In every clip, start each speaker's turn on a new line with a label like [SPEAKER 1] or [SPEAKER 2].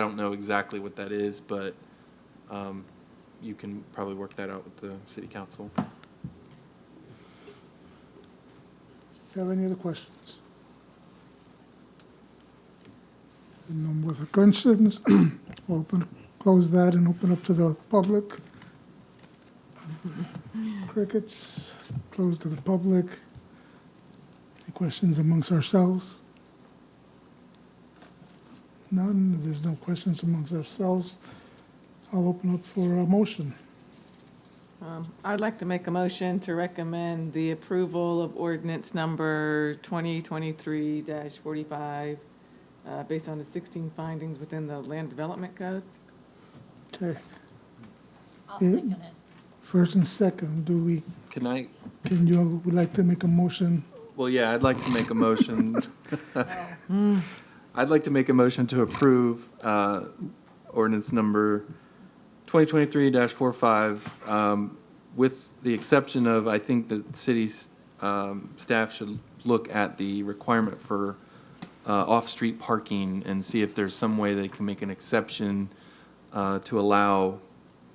[SPEAKER 1] I don't know exactly what that is, but um, you can probably work that out with the city council.
[SPEAKER 2] Do you have any other questions? And no more questions, we'll open, close that and open up to the public. Crickets, close to the public. Any questions amongst ourselves? None, If there's no questions amongst ourselves. I'll open up for a motion.
[SPEAKER 3] Um, I'd like to make a motion to recommend the approval of ordinance number 2023-45, uh, based on the 16 findings within the Land Development Code.
[SPEAKER 2] Okay,
[SPEAKER 4] I'll
[SPEAKER 2] Yeah.
[SPEAKER 4] second it.
[SPEAKER 2] first and second, do we,
[SPEAKER 1] Can I,
[SPEAKER 2] can you, would like to make a motion
[SPEAKER 1] well, yeah, I'd like to make a motion. I'd like to make a motion to approve uh, ordinance number 2023-45 um, with the exception of, I think the city's um, staff should look at the requirement for uh, off-street parking and see if there's some way they can make an exception uh, to allow,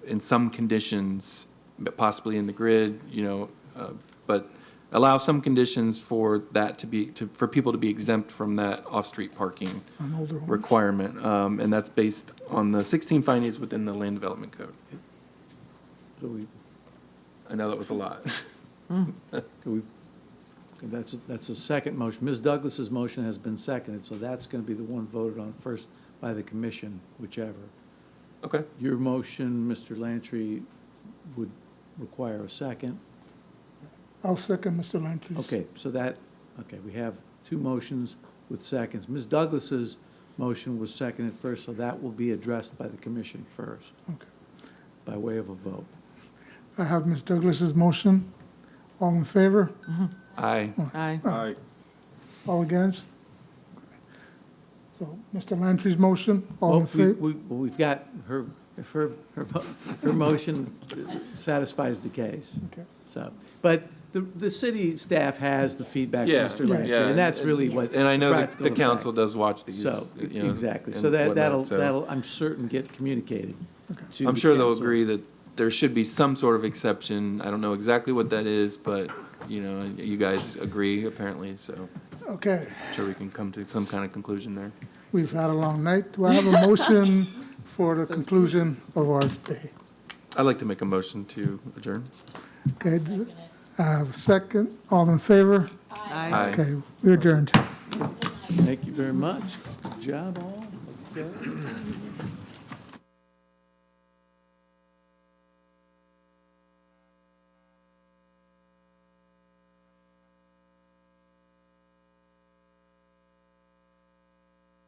[SPEAKER 1] in some conditions, but possibly in the grid, you know, uh, but allow some conditions for that to be, to, for people to be exempt from that off-street parking
[SPEAKER 2] on older homes?
[SPEAKER 1] requirement. Um, And that's based on the 16 findings within the Land Development Code.
[SPEAKER 5] So we,
[SPEAKER 1] I know that was a lot.
[SPEAKER 5] do we, okay, that's, that's the second motion. Ms. Douglas's motion has been seconded, so that's going to be the one voted on first by the commission, whichever.
[SPEAKER 1] Okay,
[SPEAKER 5] Your motion, Mr. Lantry, would require a second.
[SPEAKER 2] I'll second Mr. Lantry's.
[SPEAKER 5] Okay, so that, okay, we have two motions with seconds. Ms. Douglas's motion was seconded first, so that will be addressed by the commission first,
[SPEAKER 2] Okay.
[SPEAKER 5] by way of a vote.
[SPEAKER 2] I have Ms. Douglas's motion. All in favor?
[SPEAKER 1] aye.
[SPEAKER 3] Aye.
[SPEAKER 2] All against? So Mr. Lantry's motion, all in
[SPEAKER 5] Well, Oh, we-
[SPEAKER 2] favor?
[SPEAKER 5] we- well, We've got her, if her, her, vo- her motion satisfies the case.
[SPEAKER 2] Okay.
[SPEAKER 5] So, but the, the city staff has the feedback from
[SPEAKER 1] Yeah,
[SPEAKER 5] Mr. Lantry,
[SPEAKER 1] yeah,
[SPEAKER 5] and that's
[SPEAKER 1] and-
[SPEAKER 5] really what.
[SPEAKER 1] And I know that
[SPEAKER 5] practical
[SPEAKER 1] the council
[SPEAKER 5] effect.
[SPEAKER 1] does watch these.
[SPEAKER 5] So, e,
[SPEAKER 1] you know,
[SPEAKER 5] exactly. So
[SPEAKER 1] and
[SPEAKER 5] that,
[SPEAKER 1] whatnot,
[SPEAKER 5] that'll,
[SPEAKER 1] so-
[SPEAKER 5] that'll, I'm certain, get communicated. to
[SPEAKER 1] I'm
[SPEAKER 5] the
[SPEAKER 1] sure they'll
[SPEAKER 5] council.
[SPEAKER 1] agree that there should be some sort of exception. I don't know exactly what that is, but, you know, you guys agree apparently, so
[SPEAKER 2] Okay,
[SPEAKER 1] I'm sure we can come to some kind of conclusion there.
[SPEAKER 2] we've had a long night. Do I have a motion for the conclusion of our day?
[SPEAKER 1] I'd like to make a motion to adjourn.
[SPEAKER 2] Okay,
[SPEAKER 4] Second it.
[SPEAKER 2] I have a second. All in favor?
[SPEAKER 1] Aye.
[SPEAKER 2] Okay, we adjourned.
[SPEAKER 5] Thank you very much. Good job all. Okay.